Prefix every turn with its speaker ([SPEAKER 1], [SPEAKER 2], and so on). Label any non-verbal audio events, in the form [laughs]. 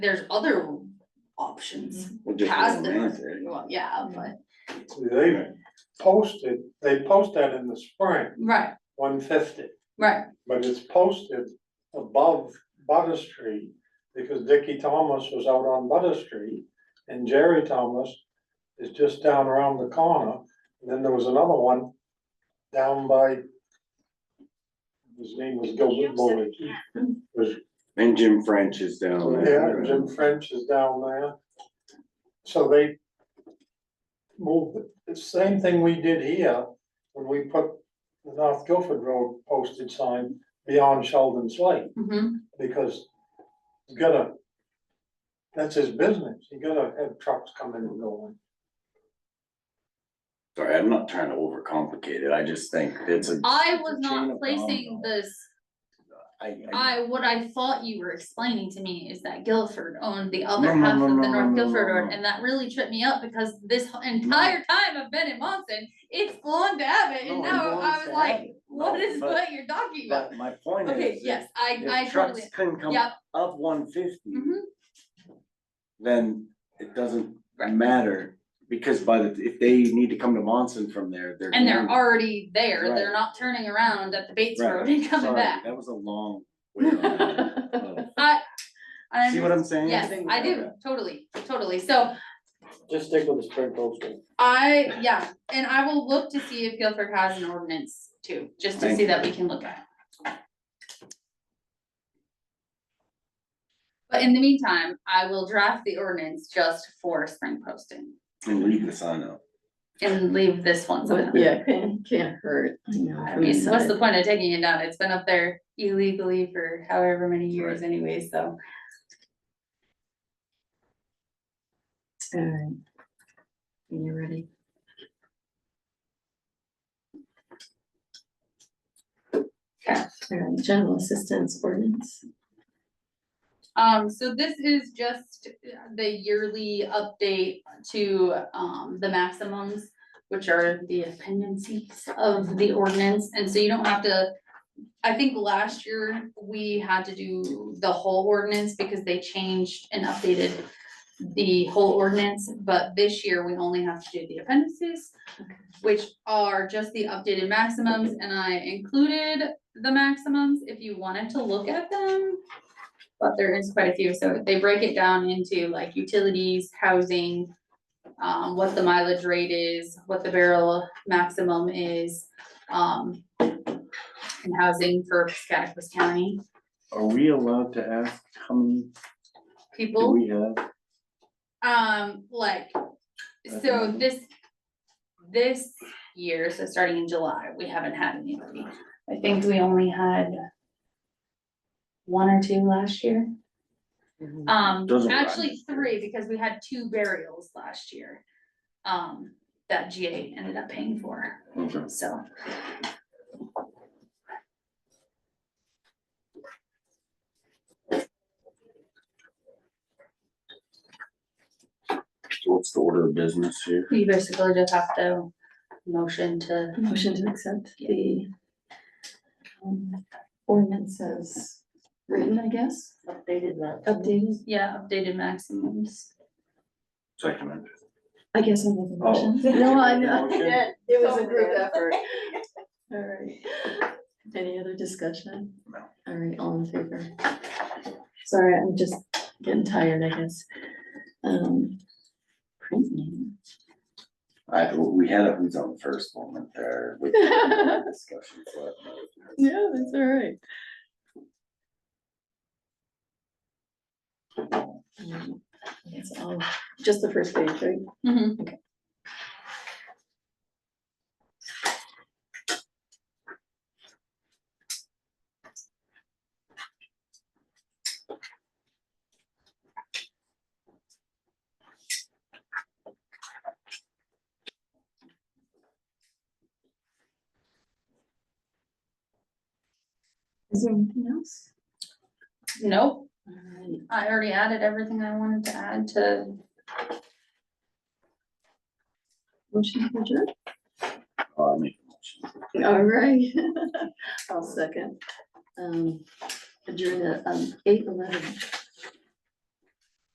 [SPEAKER 1] there's other options.
[SPEAKER 2] We'll just
[SPEAKER 1] Past
[SPEAKER 2] go on
[SPEAKER 1] the-
[SPEAKER 2] it.
[SPEAKER 1] well, yeah, but,
[SPEAKER 3] See, They posted, they post that in the spring,
[SPEAKER 1] right,
[SPEAKER 3] one fifty,
[SPEAKER 1] right,
[SPEAKER 3] but it's posted above Butter Street. Because Dickie Thomas was out on Butter Street and Jerry Thomas is just down around the corner. And then there was another one down by. His name was Gilbert Bowley, was
[SPEAKER 2] And Jim French is down
[SPEAKER 3] Yeah,
[SPEAKER 2] there.
[SPEAKER 3] Jim French is down there. So they moved, it. it's the same thing we did here, when we put the North Guilford Road posted sign beyond Sheldon's Lake,
[SPEAKER 1] mhm,
[SPEAKER 3] because you gotta, that's his business, you gotta have trucks coming and going.
[SPEAKER 2] Sorry, I'm not trying to overcomplicate it. I just think it's a,
[SPEAKER 1] I
[SPEAKER 2] It's a
[SPEAKER 1] was
[SPEAKER 2] chain
[SPEAKER 1] not
[SPEAKER 2] of
[SPEAKER 1] placing
[SPEAKER 2] dominoes.
[SPEAKER 1] this,
[SPEAKER 2] I, I.
[SPEAKER 1] I, what I thought you were explaining to me is that Guilford owned the
[SPEAKER 2] No,
[SPEAKER 1] other
[SPEAKER 2] no,
[SPEAKER 1] half
[SPEAKER 2] no,
[SPEAKER 1] of
[SPEAKER 2] no,
[SPEAKER 1] the
[SPEAKER 2] no,
[SPEAKER 1] North
[SPEAKER 2] no,
[SPEAKER 1] Guilford
[SPEAKER 2] no,
[SPEAKER 1] Road,
[SPEAKER 2] no.
[SPEAKER 1] and that really tripped me up, because this h- entire time I've been in Monson, it's belonged to Abbott, and
[SPEAKER 2] No, it
[SPEAKER 1] now I
[SPEAKER 2] belongs
[SPEAKER 1] was
[SPEAKER 2] to
[SPEAKER 1] like,
[SPEAKER 2] Abbott.
[SPEAKER 1] what
[SPEAKER 2] No,
[SPEAKER 1] is
[SPEAKER 2] but-
[SPEAKER 1] what you're talking about?
[SPEAKER 2] But my point
[SPEAKER 1] Okay,
[SPEAKER 2] is, if,
[SPEAKER 1] yes, I, I
[SPEAKER 2] if
[SPEAKER 1] totally,
[SPEAKER 2] trucks couldn't come
[SPEAKER 1] yep,
[SPEAKER 2] up one fifty,
[SPEAKER 1] mhm,
[SPEAKER 2] then it doesn't
[SPEAKER 1] Right.
[SPEAKER 2] matter. Because by the, if they need to come to Monson from there, they're.
[SPEAKER 1] and they're
[SPEAKER 2] going-
[SPEAKER 1] already there,
[SPEAKER 2] Right.
[SPEAKER 1] they're not turning around at the Bates
[SPEAKER 2] Right,
[SPEAKER 1] Road and coming
[SPEAKER 2] sorry,
[SPEAKER 1] back.
[SPEAKER 2] That was a long. way around.
[SPEAKER 1] [laughs] I'm-
[SPEAKER 2] See what I'm saying?
[SPEAKER 1] Yes, I do, totally, totally, so
[SPEAKER 3] Just stick with the spring posting.
[SPEAKER 1] I, yeah, and I will look to see if Guilford has an ordinance too, just to
[SPEAKER 2] Thank
[SPEAKER 1] see
[SPEAKER 2] you.
[SPEAKER 1] that we can look at. it. But in the meantime, I will draft the ordinance just for spring posting
[SPEAKER 2] And leave the sign up.
[SPEAKER 1] and leave this one so.
[SPEAKER 4] But yeah, can't, can't hurt, you know.
[SPEAKER 1] I
[SPEAKER 4] from
[SPEAKER 1] mean, what's
[SPEAKER 4] inside.
[SPEAKER 1] the point of taking it down? It's been up there illegally for however many years anyway, so.
[SPEAKER 4] Alright. You uh, ready?
[SPEAKER 1] Okay.
[SPEAKER 4] Alright, general assistance ordinance.
[SPEAKER 1] Um, so this is just the yearly update to, um, the maximums, which are the dependencies of the ordinance, and so you don't have to. I think last year we had to do the whole ordinance because they changed and updated the whole ordinance, but this year we only have to do the appendices, which are just the updated maximums, and I included the maximums if you wanted to look at them. But there is quite a few, so they break it down into like utilities, housing, um, what the mileage rate is, what the barrel maximum is, um. And housing for Scottsville County
[SPEAKER 2] Are we allowed to ask how many do
[SPEAKER 1] people,
[SPEAKER 2] we have?
[SPEAKER 1] um, like, so
[SPEAKER 2] Okay.
[SPEAKER 1] this. This year, so starting in July, we haven't had anybody, I think we only had. One or two last year. Um,
[SPEAKER 2] Doesn't rhyme.
[SPEAKER 1] actually three, because we had two burials last year. Um, that GA ended up paying for,
[SPEAKER 2] Okay.
[SPEAKER 1] so.
[SPEAKER 2] What's the order of business here?
[SPEAKER 1] You basically just have to motion to,
[SPEAKER 4] Motion to accept the um, ordinances written, I guess,
[SPEAKER 5] Updated that.
[SPEAKER 4] updated,
[SPEAKER 1] yeah, updated maximums.
[SPEAKER 2] Second. it.
[SPEAKER 4] I guess I'll make a
[SPEAKER 3] Oh.
[SPEAKER 4] motion.
[SPEAKER 5] No, I
[SPEAKER 3] know.
[SPEAKER 5] It
[SPEAKER 4] It was a group [laughs] effort. Alright, any other discussion?
[SPEAKER 2] No.
[SPEAKER 4] Alright, all in favor? Sorry, I'm just getting tired, I guess. Um. print name.
[SPEAKER 2] I, we had a who's on first moment there with the discussion. so I don't know.
[SPEAKER 4] Yeah, that's alright. Um, That's all, just the first page, right?
[SPEAKER 1] Mhm.
[SPEAKER 4] Is there anything else?
[SPEAKER 1] Nope,
[SPEAKER 4] Alright,
[SPEAKER 1] I already added everything I wanted to add to,
[SPEAKER 4] motion for adjournment?
[SPEAKER 2] Uh, I make a motion.
[SPEAKER 4] [laughs] All right. I'll second. Um, adjourn at, um, eight eleven.